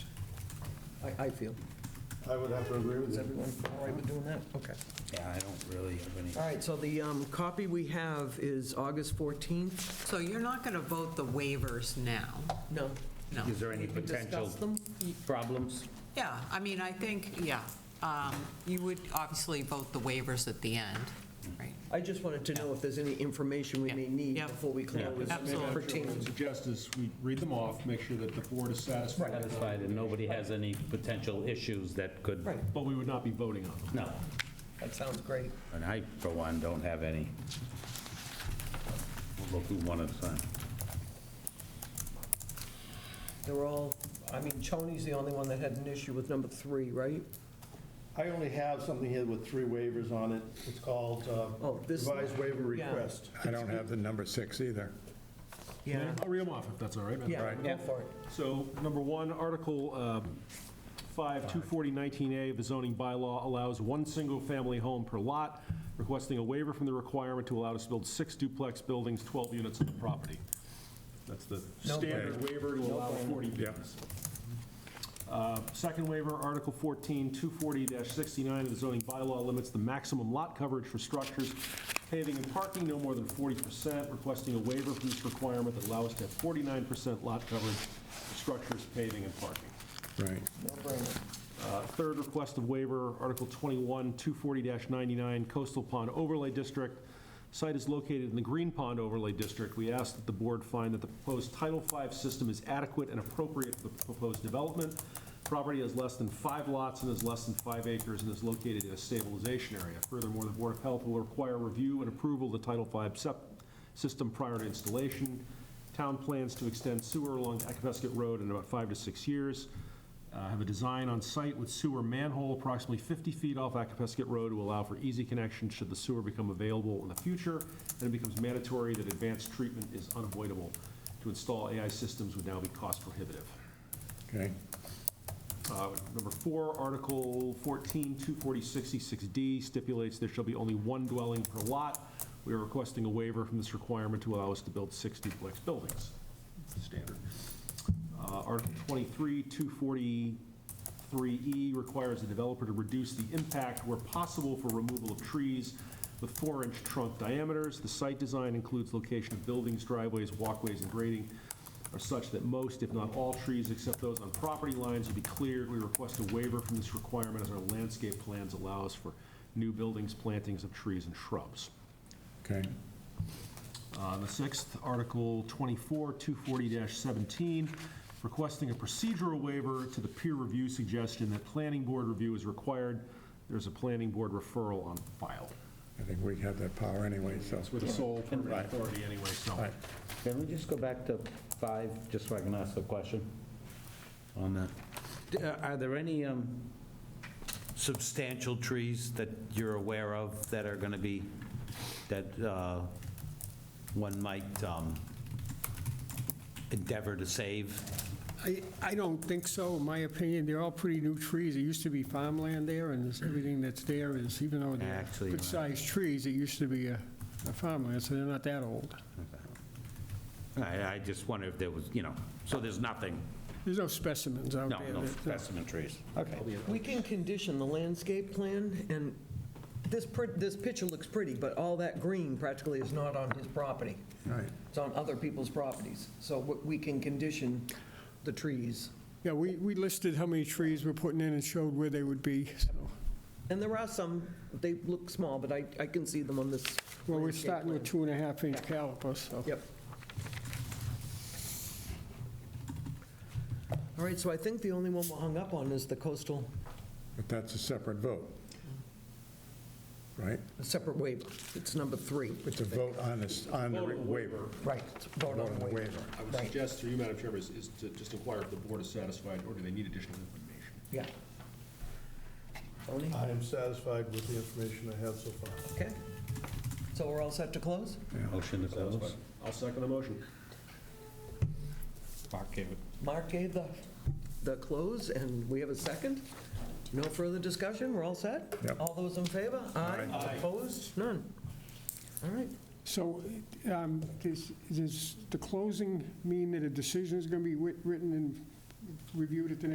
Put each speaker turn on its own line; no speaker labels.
I, I feel.
I would have to agree with
Is
you.
everyone all right with doing that? Okay.
Yeah, I don't really have any.
All right, so the um, copy we have is August 14th?
So you're not going to vote the waivers now?
No.
No.
Is there any
We can
potential
discuss them?
problems?
Yeah, I mean, I think, yeah, um, you would obviously vote the waivers at the end, right?
I just wanted to know if there's any information we may need
Yeah.
before we
Yeah.
close.
Absolutely.
Pertaining-
Suggest is we read them off, make sure that the board is satisfied.
Satisfied, and nobody has any potential issues that could,
Right,
But we would not be voting on them.
no.
that sounds great.
And I, for one, don't have any. We'll Look through one at a time.
They're all, I mean, Choney's the only one that had an issue with number three, right?
I only have something here with three waivers on it. It's called uh,
Oh, this-
revised waiver
yeah.
request.
I don't have the number six either.
Yeah.
I'll read them off if that's all right. Madam
Yeah, go
Chair.
for it.
So, number one, Article um, 5, 240-19A of the zoning bylaw allows one single-family home per lot, requesting a waiver from the requirement to allow us to build six duplex buildings, 12 units on the property. That's the standard waiver to allow 40 units. Uh, Second waiver, Article 14, 240-69 of the zoning bylaw limits the maximum lot coverage for structures, paving and parking no more than 40%, requesting a waiver from this requirement that allows us to have 49% lot coverage for structures, paving and parking.
Right.
Uh, Third request of waiver, Article 21, 240-99, Coastal Pond Overlay District. Site is located in the Green Pond Overlay District. We ask that the board find that the proposed Title V system is adequate and appropriate for the proposed development. Property has less than five lots and is less than five acres and is located in a stabilization area. Furthermore, the Board of Health will require review and approval of the Title V sep- system prior to installation. Town plans to extend sewer along Akabesket Road in about five to six years. Uh, Have a design on site with sewer manhole approximately 50 feet off Akapesket Road to allow for easy connection should the sewer become available in the future, and it becomes mandatory that advanced treatment is unavoidable. To install AI systems would now be cost prohibitive.
Okay.
Uh, Number four, Article 14, 24066D stipulates there shall be only one dwelling per lot. We are requesting a waiver from this requirement to allow us to build six duplex buildings. Standard. Uh, Article 23, 243E E requires the developer to reduce the impact where possible for removal of trees with four-inch trunk diameters. The site design includes location of buildings, driveways, walkways, and grading are such that most, if not all, trees except those on property lines will be cleared. We request a waiver from this requirement as our landscape plans allows for new buildings, plantings of trees and shrubs.
Okay.
Uh, The sixth, Article 24, 240-17, requesting a procedural waiver to the peer review suggestion that planning board review is required. There's a planning board referral on file.
I think we have that power anyway, so.
It's with the sole permitting
Right.
authority anyway, so.
Right.
Can we just go back to five, just so I can ask the question on that? D- uh, Are there any um, substantial trees that you're aware of that are going to be, that uh, one might um, endeavor to save?
I, I don't think so, in my opinion. They're all pretty new trees. It used to be farmland there, and this- everything that's there is, even though they're
Actually, you're right.
good-sized trees, it used to be a a farmland, so they're not that old.
I I just wonder if there was, you know, so there's nothing,
There's no specimens out
no,
there.
no
that-
specimen trees. Okay.
We can condition the landscape plan, and this, pr- this picture looks pretty, but all that green practically is not on his property.
Right.
It's on other people's properties. So we- we can condition the trees.
Yeah, we, we listed how many trees we're putting in and showed where they would be, so.
And there are some, they look small, but I, I can see them on this.
Well, we're
landscape
starting with
plan.
two and a half inch calipers, so.
Yep. All right, so I think the only one we're hung up on is the coastal,
But that's a separate vote. Right?
a separate waiver. It's number three.
It's a vote on this, on the waiver.
Right, it's vote on the waiver.
I would suggest through you, Madam Chairman, is- is to just inquire if the board is satisfied or do they need additional information.
Yeah. Tony?
I am satisfied with the information I have so far.
Okay. So we're all set to close?
Motion is those.
I'll second the motion.
Mark gave it.
Mark gave the, the close, and we have a second? No further discussion, we're all set?
Yep.
All those in favor? Aye.
Aye.
Opposed? None? All right.
So um, does, does the closing mean that a decision is going to be writ- written and reviewed at the next